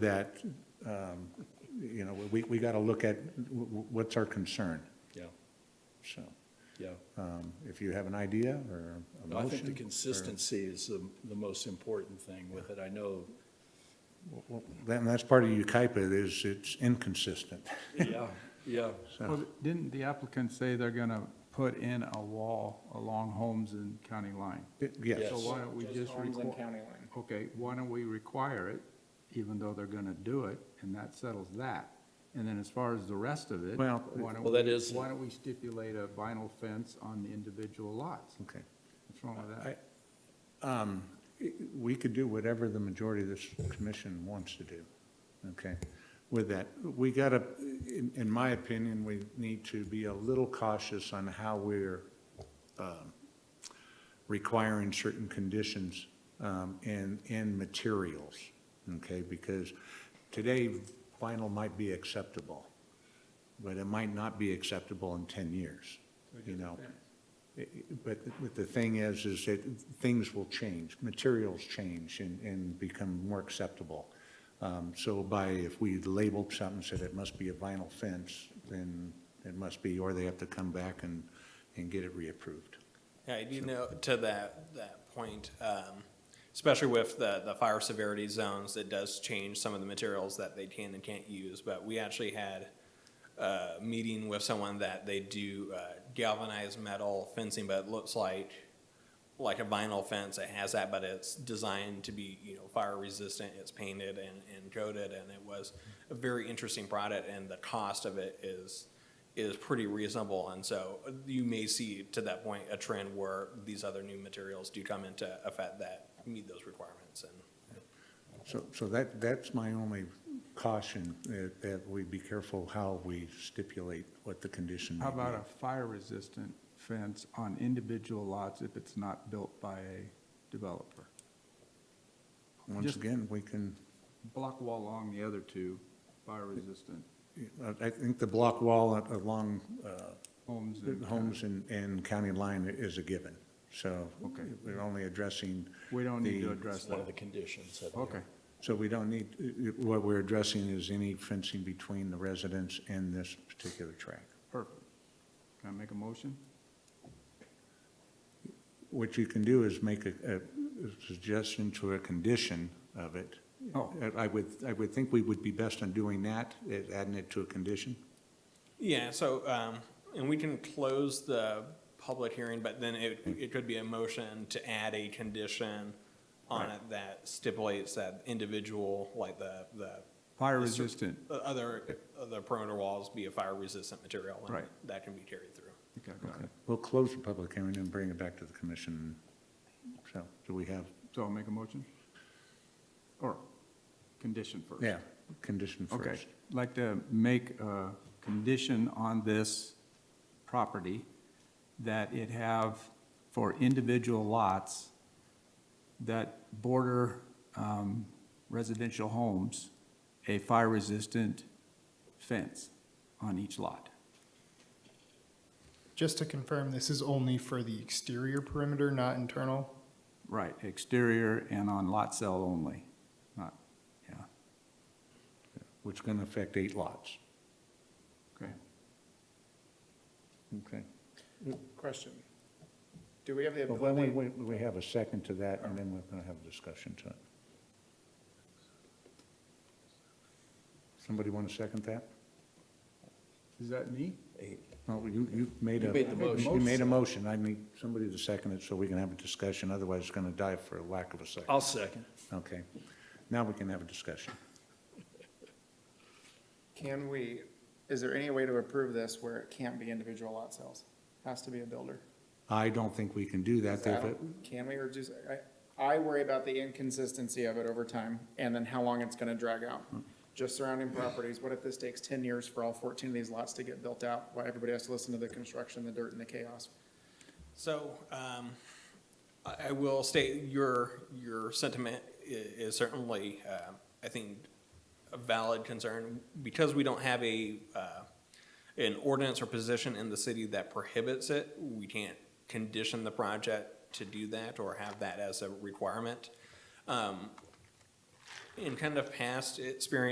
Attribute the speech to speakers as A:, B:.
A: that, um, you know, we, we got to look at wh- wh- what's our concern,
B: Yeah,
A: so.
B: yeah.
A: um, If you have an idea or a
B: I
A: motion.
B: think the
A: or-
B: consistency is the, the most important thing with it. I know,
A: Well, Then that's part of UKIPA is it's inconsistent.
B: yeah, yeah.
C: Well, didn't the applicant say they're gonna put in a wall along Holmes and County Line?
A: It- Yes,
C: So
B: Yes.
C: why don't we just require? Okay, why don't we require it, even though they're gonna do it, and that settles that? And then as far as the rest of it,
A: Well,
C: why don't?
B: Well, that is-
C: Why don't we stipulate a vinyl fence on the individual lots?
A: okay.
C: What's wrong with
A: I-
C: that?
A: We could do whatever the majority of this commission wants to do, okay? With that, we got to, in, in my opinion, we need to be a little cautious on how we're um, requiring certain conditions um, in, in materials, okay? Because today vinyl might be acceptable, but it might not be acceptable in 10 years, you know? I- I- But, th- but the thing is, is that things will change, materials change and, and become more acceptable. Um, So by, if we labeled something, said it must be a vinyl fence, then it must be, or they have to come back and, and get it reapproved.
D: Yeah, I do know, to that, that point, um, especially with the, the fire severity zones, it does change some of the materials that they can and can't use, but we actually had a meeting with someone that they do uh, galvanized metal fencing, but it looks like, like a vinyl fence, it has that, but it's designed to be, you know, fire resistant, it's painted and, and coated, and it was a very interesting product, and the cost of it is, is pretty reasonable, and so uh, you may see, to that point, a trend where these other new materials do come into effect that meet those requirements, and
A: So, so that, that's my only caution, that, that we be careful how we stipulate what the condition may
C: How
A: be.
C: about a fire-resistant fence on individual lots if it's not built by a developer?
A: Once
C: just-
A: again, we can,
C: Block wall along the other two, fire-resistant
A: I- I think the block wall a- along uh,
C: homes and.
A: the homes and, and county line is a given. So
C: Okay.
A: we're only addressing,
C: We don't need to
A: the-
C: address
B: That's one of the
C: that.
B: conditions. of it.
C: Okay,
A: so we don't need, what we're addressing is any fencing between the residents and this particular track.
C: perfect. Can I make a motion?
A: What you can do is make a, a suggestion to a condition of it. Uh,
C: Oh.
A: I would, I would think we would be best on doing that, is adding it to a condition.
D: Yeah, so, um, and we can close the public hearing, but then it, it could be a motion to add a condition on it that stipulates that individual, like the, the
C: Fire resistant,
D: the other, other perimeter walls be a fire-resistant material. and
C: Right.
D: That can be carried through.
C: okay, I got it.
A: We'll close the public hearing and bring it back to the commission. So, do we have,
C: So I'll make a motion? Or condition first?
A: yeah, condition first.
C: Okay, I'd like to make a condition on this property that it have for individual lots that border um, residential homes, a fire-resistant fence on each lot.
E: Just to confirm, this is only for the exterior perimeter, not internal?
C: Right, exterior and on lot cell only, not, yeah,
A: which is going to affect eight lots.
C: okay.
A: Okay.
F: Question. Do we have the
A: But when we,
F: ability,
A: we we have a second to that, and then we're going to have a discussion to it. Somebody want to second that?
C: Is that me?
A: No, you, you made a.
B: You made the motion.
A: You made a motion. I need somebody to second it so we can have a discussion, otherwise it's going to die for lack of a second.
B: I'll second.
A: Okay. Now we can have a discussion.
F: can we, is there any way to approve this where it can't be individual lot sales? Has to be a builder.
A: I don't think we can do that.
F: Is that-
A: They've-
F: Can we reduce, I, I worry about the inconsistency of it over time and then how long it's gonna drag out.
A: Hmm.
F: Just surrounding properties, what if this takes ten years for all fourteen of these lots to get built out? Why everybody has to listen to the construction, the dirt and the chaos?
D: So, um, I, I will state your, your sentiment i- is certainly, uh, I think, a valid concern. Because we don't have a, uh, an ordinance or position in the city that prohibits it, we can't condition the project to do that or have that as a requirement. Um, in kind of past experience.